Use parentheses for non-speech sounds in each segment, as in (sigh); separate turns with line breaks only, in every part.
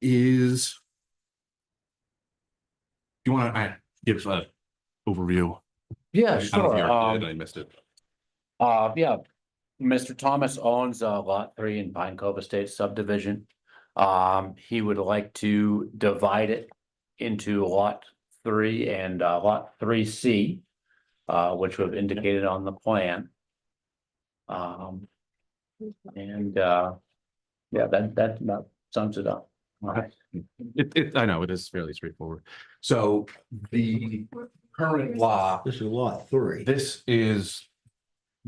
is. You want to give an overview?
Yeah,
I don't know if you
sure.
already
Um,
did, I missed it.
Uh, yeah, Mr. Thomas owns uh lot three in Pine Cove Estates subdivision. Um, he would like to divide it into lot three and uh lot three C. Uh, which we've indicated on the plan. Um. And uh, yeah, that that about sums it up.
Okay. It, it, I know, it is fairly straightforward. So the current law,
This is lot three.
this is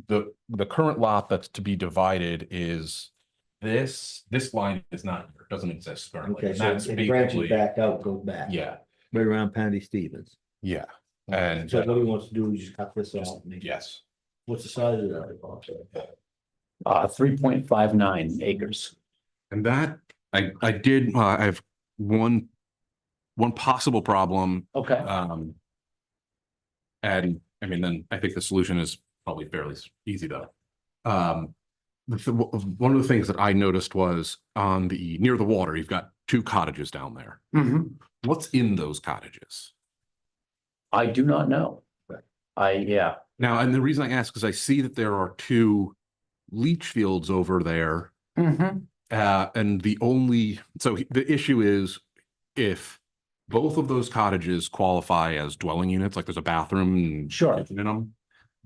the, the current lot that's to be divided is this, this line is not, doesn't exist currently.
Okay,
and
so
That's
it branches
basically,
back out, goes back.
yeah,
Right around Pandy Stevens.
yeah, And-
So if he wants to do is just cut this off. and make-
yes.
What's the size of that?
Uh, three point five nine acres.
And that, I, I did, uh, I have one, one possible problem
Okay,
Um. And I mean, then I think the solution is probably fairly s- easy though. Um, the, th- w- one of the things that I noticed was on the, near the water, you've got two cottages down there.
Mhm.
What's in those cottages?
I do not know. I, yeah,
Now, and the reason I ask is I see that there are two leach fields over there.
Mhm.
Uh, and the only, so he- the issue is if both of those cottages qualify as dwelling units, like there's a bathroom and
Sure.
kitchen in 'em,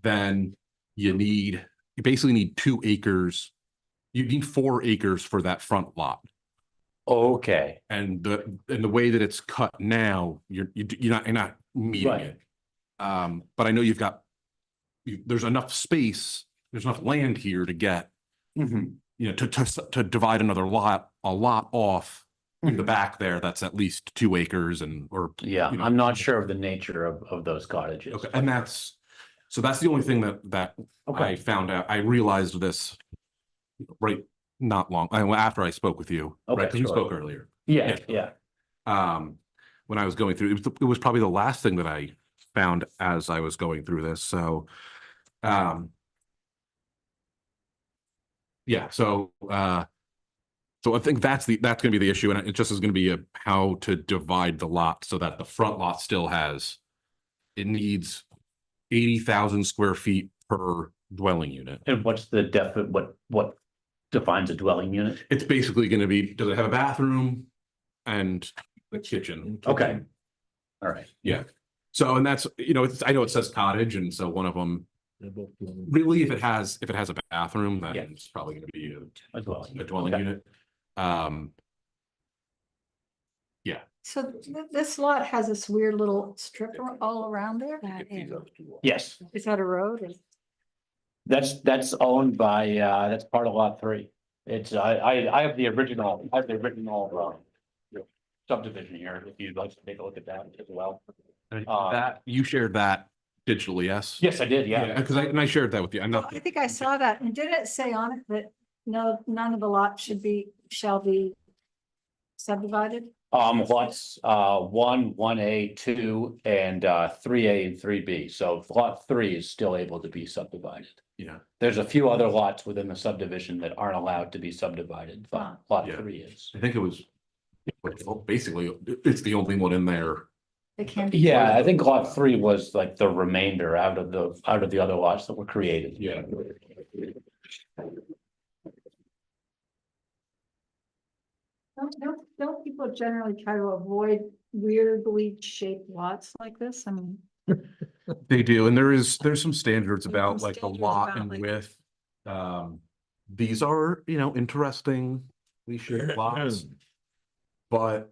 then you need, you basically need two acres. You need four acres for that front lot.
okay.
And the, and the way that it's cut now, you're, you d- you're not, you're not meeting
Right.
it. Um, but I know you've got, you, there's enough space, there's enough land here to get,
Mhm.
you know, to, to, s- to divide another lot, a lot off in the
Mhm.
back there, that's at least two acres and, or,
Yeah,
you know.
I'm not sure of the nature of, of those cottages.
okay, and that's, so that's the only thing that, that I
Okay,
found out, I realized this right, not long, I- after I spoke with you, right,
Okay,
'cause we
sure.
spoke earlier.
yeah,
yeah.
yeah,
um, when I was going through, it was, the- it was probably the last thing that I found as I was going through this, so, um. Yeah, so, uh, so I think that's the, that's gonna be the issue, and it just is gonna be a, how to divide the lot so that the front lot still has. It needs eighty thousand square feet per dwelling unit.
and what's the def, what, what defines a dwelling unit?
It's basically gonna be, does it have a bathroom and the kitchen?
Okay. All right,
So, and that's, you know, it's, I know it says cottage, and so one of them,
They're both one.
really, if it has, if it has a bathroom, then
Yeah.
it's probably gonna be a-
a dwelling.
a
unit.
dwelling
Okay.
unit. Um,
So th- this lot has this weird little strip ar- all around there?
Yes,
Is that a road? or-
that's, that's owned by, uh, that's part of lot three. It's, I, I, I have the original, I have the original, uh, subdivision here, if you'd like to take a look at that as well. Uh,
that, you shared that digitally, yes?
Yes, I did, yeah.
Cause I, and I shared that with you, I'm not,
I think I saw that. And did it say on it that no, none of the lots should be, shall be subdivided?
Um, lots, uh, one, one A, two, and, uh, three A and three B, so lot three is still able to be subdivided.
yeah,
There's a few other lots within the subdivision that aren't allowed to be subdivided, but lot
Yeah.
three is.
I think it was. well, Basically, it's the only one in there.
They can be.
Yeah, I think lot three was like the remainder out of the, out of the other lots that were created.
Yeah.
Don't, don't, don't people generally try to avoid weirdly shaped lots like this? I mean,
They do, and there is, there's some standards
There's
about
some
like the
standards
lot
about,
and
like-
width. Um, these are, you know, interesting, we
(laughs)
should lots. But.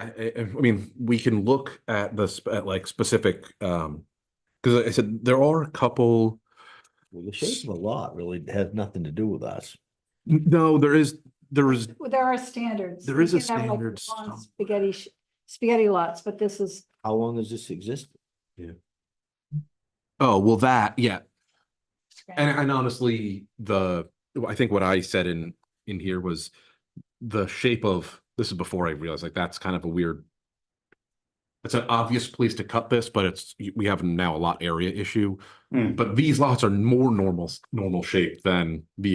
I, I, I mean, we can look at the, sp- at like specific, um, cause I said, there are a couple.
Well, The shape of a lot really has nothing to do with us.
N- No, there is, there is,
well, there are standards.
There
You
is a
can have, like,
standard
long
somewhere.
Spaghetti, sh- spaghetti lots, but this is,
How long has this existed?
oh, well, that, yeah, and, and honestly, the, I think what I said in, in here was. The shape of, this is before I realized, like, that's kind of a weird. It's an obvious place to cut this, but it's, we have now a lot area issue.
Hmm.
But these lots are more normal, normal shape than the